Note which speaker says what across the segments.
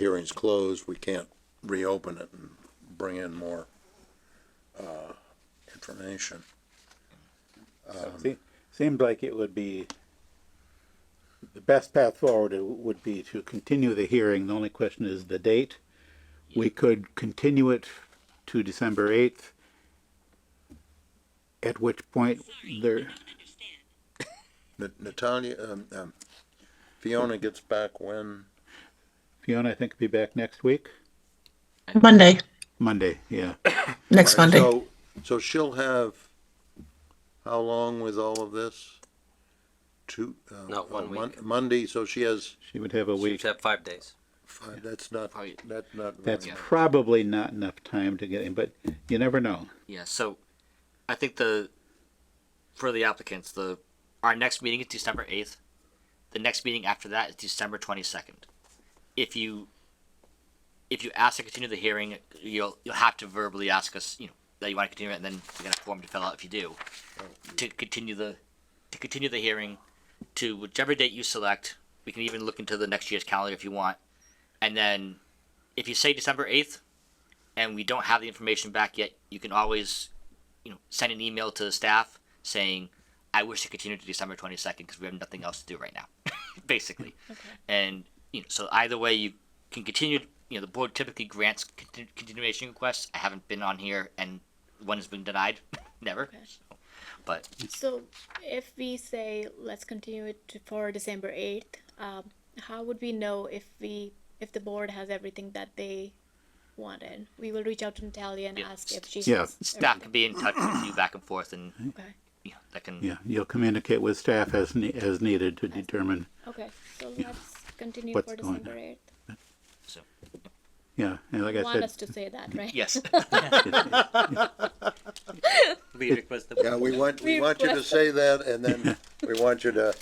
Speaker 1: hearing's closed, we can't reopen it and bring in more, uh, information.
Speaker 2: Um,
Speaker 3: Se- Seems like it would be, the best path forward i- would be to continue the hearing. The only question is the date. We could continue it to December 8th, at which point there,
Speaker 1: Na- Natalia, um, um, Fiona gets back when,
Speaker 3: Fiona, I think, will be back next week,
Speaker 4: Monday,
Speaker 3: Monday, yeah.
Speaker 4: next Monday.
Speaker 1: so, so she'll have, how long with all of this? Two, uh.
Speaker 5: No, one
Speaker 1: uh, Mon-
Speaker 5: week.
Speaker 1: Monday, so she has,
Speaker 3: She would have a week.
Speaker 5: Should have five days.
Speaker 1: five- that's not,
Speaker 5: Probably-
Speaker 1: that's not.
Speaker 3: That's
Speaker 1: very-
Speaker 3: probably not enough time to get in, but you never know.
Speaker 5: Yeah, so I think the for the applicants, the our next meeting is December eighth. The next meeting after that is December twenty second. If you if you ask to continue the hearing, you'll you'll have to verbally ask us, you know, that you want to continue it, and then you got a form to fill out if you do. To continue the to continue the hearing to whichever date you select. We can even look into the next year's calendar if you want. And then if you say December eighth, and we don't have the information back yet, you can always, you know, send an email to the staff saying, "I wish to continue to December twenty second because we have nothing else to do right now," basically. And you know, so either way, you can continue. You know, the board typically grants continu- continuation requests. I haven't been on here, and one has been denied, never. So, but
Speaker 2: So if we say, let's continue it to- for December eighth, um, how would we know if we, if the board has everything that they wanted? We will reach out to Natalia and
Speaker 5: Yeah.
Speaker 2: ask if she
Speaker 3: Yeah.
Speaker 2: has.
Speaker 5: staff can be in touch with you back and forth, and
Speaker 2: everything.
Speaker 5: you know, that can.
Speaker 3: Yeah, you'll communicate with staff as, ne- as needed to determine,
Speaker 2: Okay, okay, so let's continue
Speaker 3: What's
Speaker 2: for
Speaker 3: going on?
Speaker 2: December eighth.
Speaker 5: So
Speaker 3: yeah, and like
Speaker 2: You
Speaker 3: I
Speaker 2: want us
Speaker 3: said,
Speaker 2: to say that, right?
Speaker 5: yes, we request the
Speaker 1: Yeah, we want, we
Speaker 2: We
Speaker 1: want you to
Speaker 2: request-
Speaker 1: say that, and then we want you to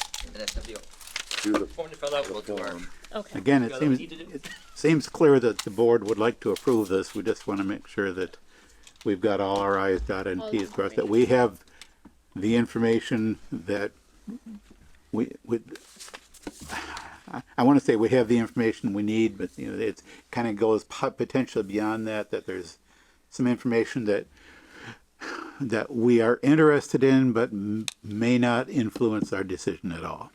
Speaker 1: do the
Speaker 5: form to fill out. We'll do our.
Speaker 1: form.
Speaker 2: Okay,
Speaker 3: again, it
Speaker 5: Yeah,
Speaker 3: seems,
Speaker 5: that's easy to do.
Speaker 3: it seems clear that the board would like to approve this. We just want to make sure that we've got all our i's dotted and
Speaker 2: All
Speaker 3: t's
Speaker 2: the
Speaker 3: crossed, that we have the information that we, we, I- I want to say we have the information we need, but you know, it kind of goes po- potentially beyond that, that there's some information that that we are interested in, but m- may not influence our decision at all.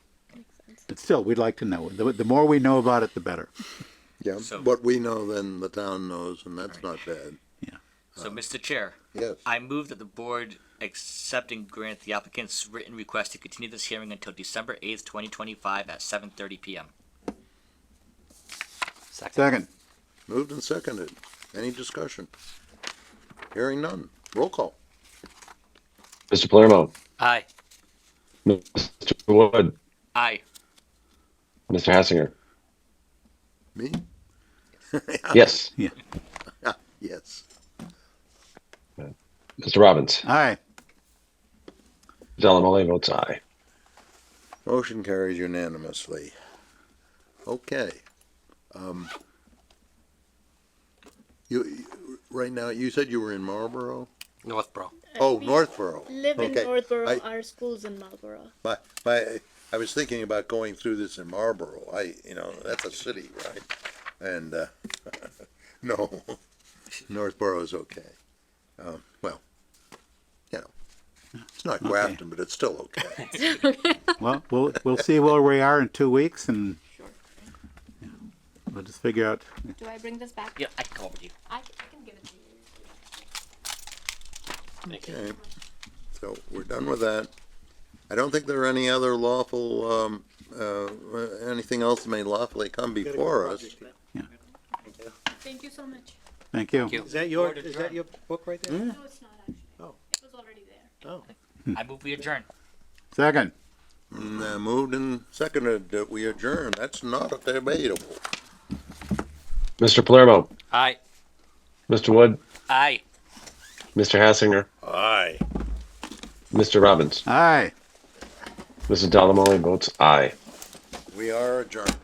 Speaker 3: But still, we'd like to know. The, the more we know about it, the better.
Speaker 1: Yeah,
Speaker 5: So-
Speaker 1: what we know then, the town knows, and that's not bad.
Speaker 5: So, Mr. Chair.
Speaker 1: Yes.
Speaker 5: I move that the board accept and grant the applicant's written request to continue this hearing until December eighth, twenty twenty-five at seven thirty PM.
Speaker 3: Second,
Speaker 1: Moved and seconded. Any discussion? Hearing none. Roll call.
Speaker 6: Mr. Palermo,
Speaker 5: Aye.
Speaker 6: Mr. Wood,
Speaker 5: Aye.
Speaker 6: Mr. Hassinger.
Speaker 1: Me?
Speaker 6: Yes.
Speaker 1: Yes.
Speaker 6: Mr. Robbins.
Speaker 3: aye.
Speaker 6: Delamole votes aye.
Speaker 1: Motion carries unanimously. Okay. Um, you, you- right now, you said you were in Marlboro?
Speaker 5: Northborough.
Speaker 1: Oh,
Speaker 2: Uh, we-
Speaker 1: Northborough.
Speaker 2: live in
Speaker 1: Okay.
Speaker 2: Northborough,
Speaker 1: I-
Speaker 2: our school's in Marlborough.
Speaker 1: My, my, I was thinking about going through this in Marlboro. I, you know, that's a city, right? And, uh, no, Northboro's okay. Um, well, you know, it's not Grafton, but it's still okay.
Speaker 3: Well, we'll we'll see where we are in two weeks, and we'll just figure out.
Speaker 2: Do I bring this back?
Speaker 5: Yeah, I can call over to you.
Speaker 2: I, I can give it to you.
Speaker 1: Okay, so we're done with that. I don't think there are any other lawful, um, uh, anything else that may lawfully come before us.
Speaker 2: Thank you so much.
Speaker 3: Thank you.
Speaker 5: you.
Speaker 7: Is that your, is that your book right there?
Speaker 2: No, it's not actually.
Speaker 7: Oh.
Speaker 2: It was already there.
Speaker 7: Oh.
Speaker 5: I move we adjourn.
Speaker 3: Second,
Speaker 1: And, uh, Moved and seconded that we adjourn. That's not debatable.
Speaker 6: Mr. Palermo,
Speaker 5: Aye.
Speaker 6: Mr. Wood,
Speaker 5: Aye.
Speaker 6: Mr. Hassinger,
Speaker 1: Aye.
Speaker 6: Mr. Robbins.
Speaker 3: aye.
Speaker 6: Mrs. Delamole votes aye.
Speaker 1: We are adjourned.